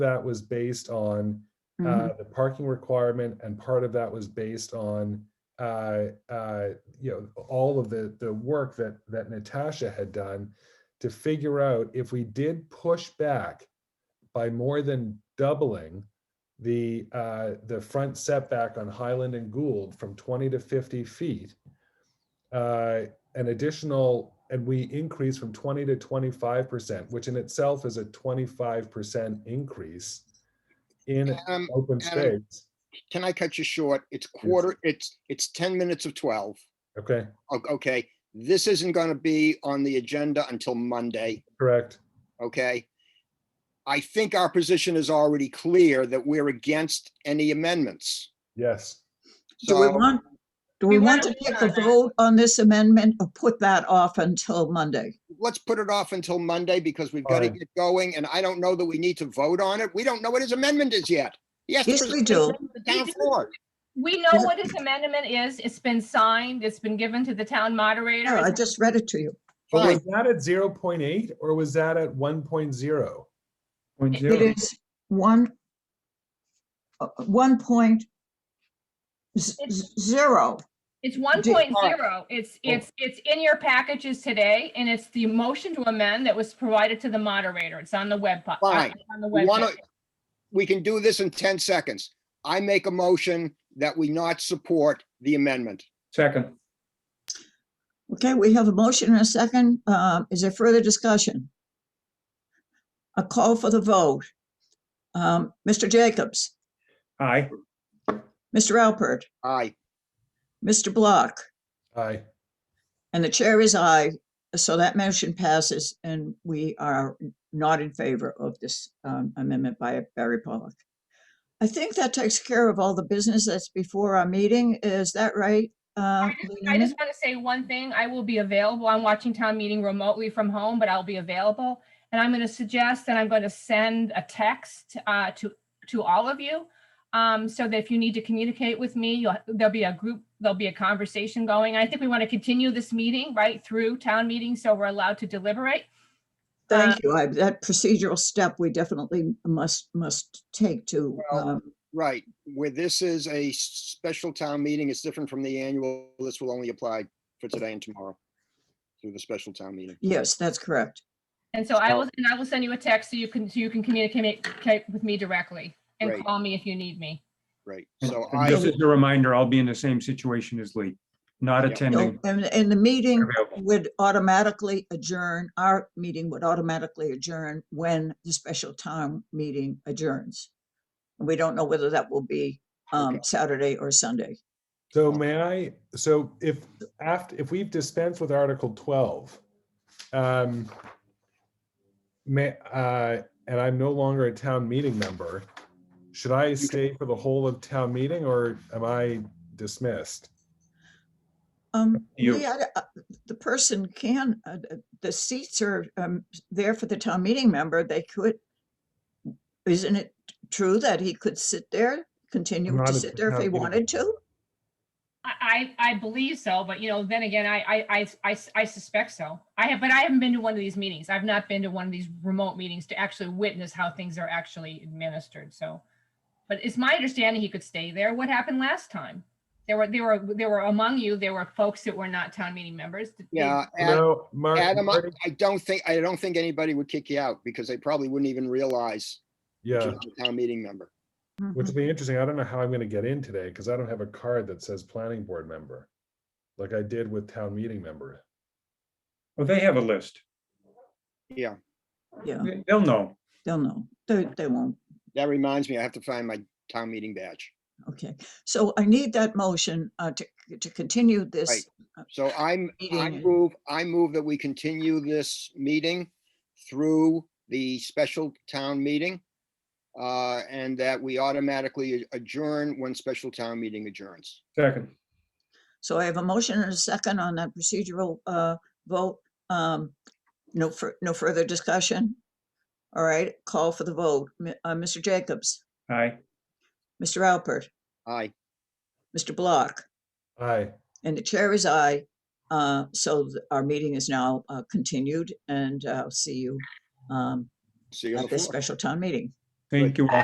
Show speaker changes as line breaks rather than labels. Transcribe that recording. that was based on
Mhm.
uh, the parking requirement, and part of that was based on uh, uh, you know all of the the work that that Natasha had done to figure out if we did push back by more than doubling the uh, the front setback on Highland and Gould from 20 to 50 feet, uh, an additional and we increase from 20 to 25 percent, which in itself is a 25 percent increase in
Um,
open
Adam-
space.
can I cut you short? It's quarter, it's, it's ten minutes of twelve.
Okay,
O- Okay, this isn't gonna be on the agenda until Monday,
correct.
okay? I think our position is already clear that we're against any amendments.
Yes.
Do we
So-
want, do we want to take the vote on this amendment or put that off until Monday?
let's put it off until Monday because we've got to
Fine.
get going and I don't know that we need to vote on it. We don't know what his amendment is yet. Yes.
Yes, we do.
The town floor.
We know what his amendment is. It's been signed. It's been given to the town
Yeah, I
moderator.
just read it to you.
But was
Fine.
that at 0.8 or was that at 1.0?
Point
It
zero.
It is one, uh, one point z- z- zero.
It's one point zero. It's,
Oh.
it's, it's in your packages today and it's the motion to amend that was provided to the moderator. It's on the web. po- on-
Fine.
On the
We
web.
want to, we can do this in 10 seconds. I make a motion that we not support the amendment.
Second.
Okay, we have a motion and a second. Uh, Is there further discussion? A call for the vote. Um, Mr. Jacobs,
Aye.
Mr. Alpert,
Aye.
Mr. Block,
Aye.
and the chair is aye. So that motion passes and we are not in favor of this um, amendment by Barry Pollock. I think that takes care of all the business that's before our meeting. Is that right? uh,
I
Lena?
just want to say one thing. I will be available. I'm watching town meeting remotely from home, but I'll be available. And I'm going to suggest that I'm going to send a text uh, to, to all of you. um, So that if you need to communicate with me, you'll, there'll be a group, there'll be a conversation going. I think we want to continue this meeting right through town meeting, so we're allowed to deliberate.
Thank you. I- That procedural step we definitely must, must take to,
Well,
um,
Right. Where this is a special town meeting, it's different from the annual. This will only apply for today and tomorrow through the special town meeting.
yes, that's correct.
And so I will, and I will send you a text so you can, so you can communicate communicate with me directly and
Great.
call me if you need me.
Right.
And-
So
and
I,
Just as a reminder, I'll be in the same situation as Lee, not
Yeah.
So-
attending.
And, and the meeting
Available.
would automatically adjourn, our meeting would automatically adjourn when the special town meeting adjourns. We don't know whether that will be, um, Saturday or Sunday.
So may I, so if, after, if we've dispensed with Article 12, um, may, uh, and I'm no longer a town meeting member, should I stay for the whole of town meeting or am I dismissed?
Um,
You.
Lee, I- I- the person can, uh, uh, the seats are, um, there for the town meeting member, they could. Isn't it true that he could sit there, continue
Not
to
at
sit
the
there if
town
he
meeting.
wanted to?
I, I I believe so, but you know, then again, I, I, I, I, I suspect so. I have, but I haven't been to one of these meetings. I've not been to one of these remote meetings to actually witness how things are actually administered, so. But it's my understanding he could stay there. What happened last time? There were, there were, there were among you, there were folks that were not town meeting members. Did they-
yeah, Ad-
No, Mark,
Adam, I
Marty-
I don't think, I don't think anybody would kick you out because they probably wouldn't even realize that
yeah,
you're not a town meeting member.
which will be interesting. I don't know how I'm gonna get in today because I don't have a card that says planning board member, like I did with town meeting member.
Well, Oh, they have a list.
Yeah,
Mm-hmm. Yeah,
They- They'll know.
they'll know. They, they won't.
that reminds me, I have to find my town meeting badge.
Okay. So I need that motion, uh, to, to continue this.
So I'm, I
Meeting.
move, I move that we continue this meeting through the special town meeting. Uh, and that we automatically adjourn when special town meeting adjourns.
Second.
So I have a motion and a second on that procedural, uh, vote. Um, no, fur no further discussion. All right, call for the vote. Mi- Uh, Mr. Jacobs,
Aye.
Mr. Alpert,
Aye,
Mr. Block,
Aye.
and the chair is aye. Uh, So th- our meeting is now uh, continued, and uh, I'll see you um,
see you on
at
the
this
floor.
special town meeting.
Thank you all.